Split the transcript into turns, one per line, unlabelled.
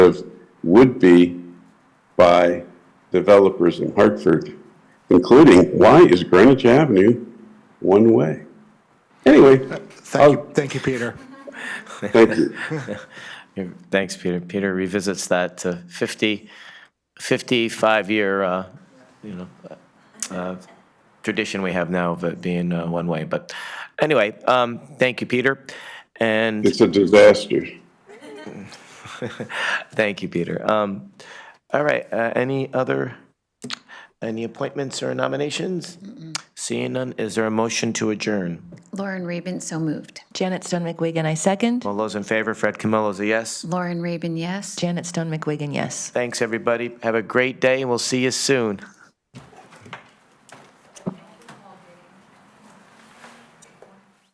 would be by developers in Hartford, including why is Greenwich Avenue one-way? Anyway,
Thank you, thank you, Peter.
thank you.
Yeah, Thanks, Peter. Peter revisits that uh, 50, 55-year, you know, uh, tradition we have now of it being uh, one-way. But anyway, um, thank you, Peter. And
It's a disaster.
thank you, Peter. Um, All right, uh, any other, any appointments or nominations? Seeing none, is there a motion to adjourn?
Lauren Rabin, so moved.
Janet Stone McWigan, I second.
All those in favor, Fred Camillo's a yes.
Lauren Rabin, yes.
Janet Stone McWigan, yes.
Thanks, everybody. Have a great day, and we'll see you soon.